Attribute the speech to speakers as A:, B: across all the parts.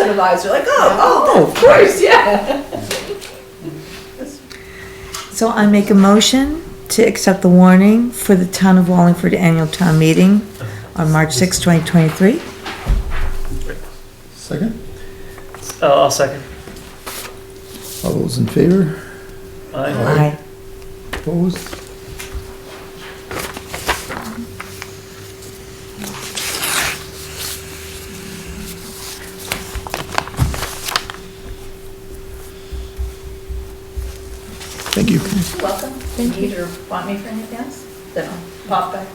A: incentivized, you're like, oh, oh, of course, yeah.
B: So I make a motion to accept the warning for the Town of Wallingford Annual Town Meeting on March 6, 2023.
C: Second,
D: Oh, I'll, I'll second.
C: all those in favor,
D: Aye.
B: Aye.
C: opposed? Thank you.
A: Welcome. Need or want me for anything else? Then I'll pop back.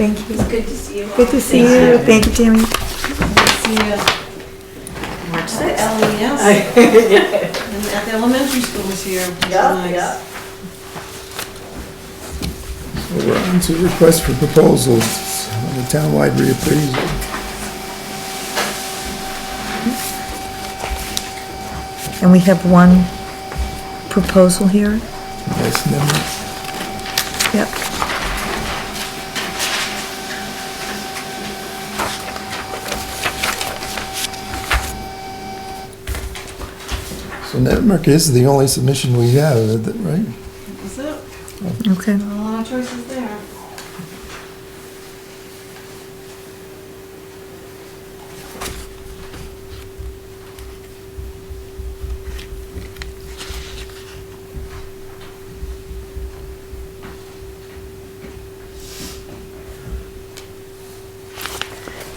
B: Thank you.
A: Good to see you.
B: Good to see you. Thank you, Tammy.
E: See you at
A: March sixth.
E: LES. And At the elementary school this year. which is
A: Yeah,
E: nice.
A: yeah.
C: We're on to request for proposals on the townwide reappraisal.
B: And we have one proposal here.
C: Nice number.
B: Yep.
C: So Nutmeg is the only submission we have, that- right?
E: That's it.
B: Okay.
E: Not a lot of choices there.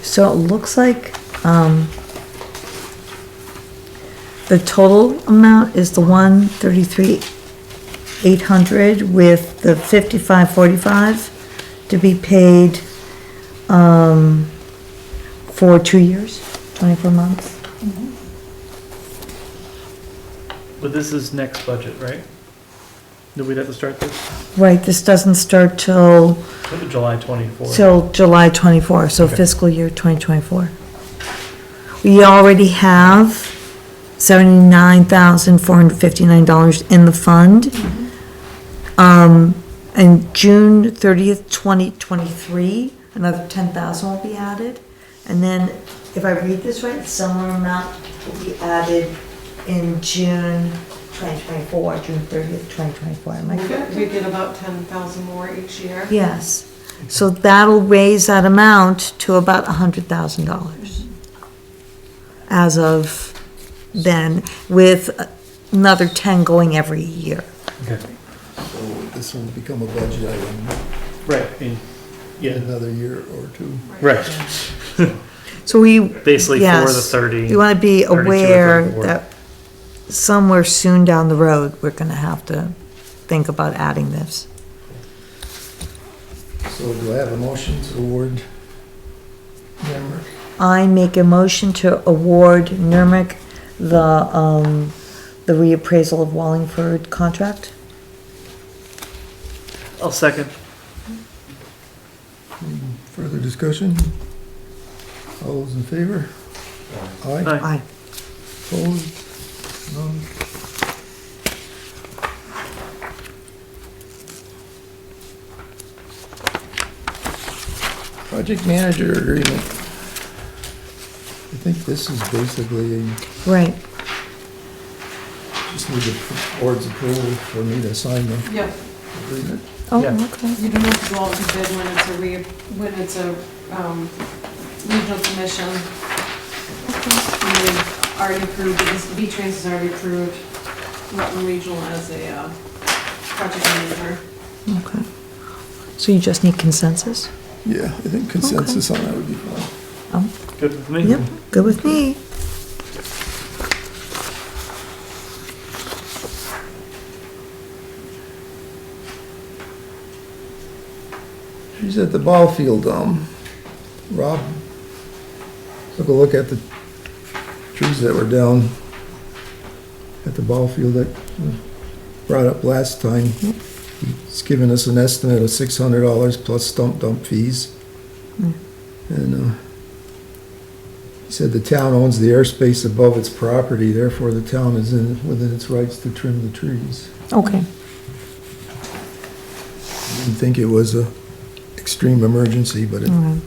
B: So it looks like, um, the total amount is the one thirty-three, eight hundred with the fifty-five, forty-five to be paid, um, for two years, twenty-four months.
D: But this is next budget, right? That we'd have to start this,
B: Right, this doesn't start till,
D: July twenty-fourth.
B: till July twenty-four, so
D: Okay.
B: fiscal year twenty twenty-four. We already have seventy-nine thousand four hundred fifty-nine dollars in the fund. Um, and June thirtieth, twenty twenty-three, another ten thousand will be added. And then, if I read this right, similar amount will be added in June twenty twenty-four, June thirtieth, twenty twenty-four, am I
E: We
B: correct?
E: get- We get about ten thousand more each year.
B: Yes, so that'll raise that amount to about a hundred thousand dollars. As of then, with another ten going every year.
D: Okay,
C: So this will become a budget item
D: right, I mean,
C: in
D: yeah,
C: another year or two.
D: right,
B: So we,
D: basically for the
B: yes,
D: thirty.
B: you wanna be
D: 32 or
B: aware
D: 34.
B: that somewhere soon down the road, we're gonna have to think about adding this.
C: So do I have a motion to award? Number.
B: I make a motion to award Nurmic the, um, the reappraisal of Wallingford contract.
D: I'll second.
C: Further discussion? All those in favor? Aye,
D: Aye.
B: Aye.
C: opposed? None? Project manager agreement. I think this is basically,
B: Right.
C: just need the board's approval for me to sign the
E: Yeah,
C: agreement.
B: Oh,
D: Yeah.
B: okay.
E: you don't have to go out to bid when it's a re, when it's a, um, regional commission. And they've already approved, because V-Trans has already approved Rutland Regional as a, uh, project manager.
B: Okay. So you just need consensus?
C: Yeah, I think consensus on that would be fine.
D: Good with me?
B: Yep, good with me.
C: She's at the ball field, um, Rob took a look at the trees that were down at the ball field that we brought up last time. He's given us an estimate of six hundred dollars plus stump dump fees. And, uh, he said the town owns the airspace above its property, therefore the town is in, within its rights to trim the trees.
B: Okay.
C: Didn't think it was a extreme emergency, but it
B: All right.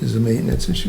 C: is a maintenance issue.